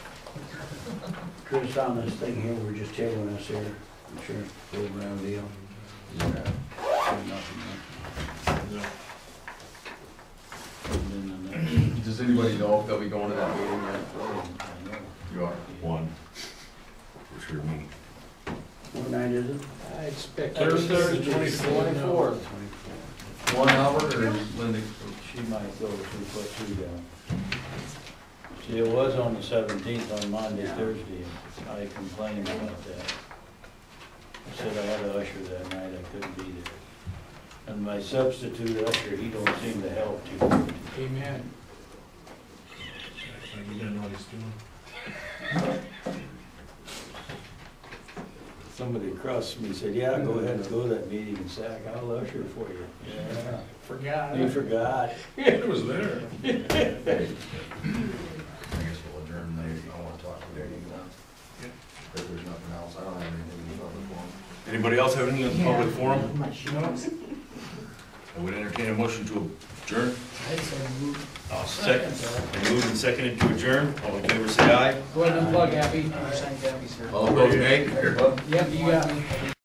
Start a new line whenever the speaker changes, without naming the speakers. Chris, on this thing here, we're just tabling this here, insurance program deal.
Does anybody know if they'll be going to that meeting yet? You are.
One, for sure me.
What night is it?
I expect.
Thursday, twenty-fourth.
One hour or Linda?
She might go to put two down. See, it was on the seventeenth, on Monday,
Yeah.
Thursday, I complained about that. I said I had a usher that night, I couldn't be there. And my substitute usher, he don't seem to help too much.
Amen.
He doesn't know what he's doing.
Somebody across from me said, yeah, go ahead and go to that meeting in Sac, I'll usher for you.
Forgot.
You forgot.
It was there.
I guess we'll adjourn later, I wanna talk to Derek now.
Yeah.
If there's nothing else, I don't have anything to talk about.
Anybody else have anything in the public forum?
No.
I would entertain a motion to adjourn.
I said, move.
I'll second. I moved and seconded to adjourn. All in favor, say aye.
Go ahead and plug Abby. Sign Abby's here.
All opposed, nay?
Yep, you got me.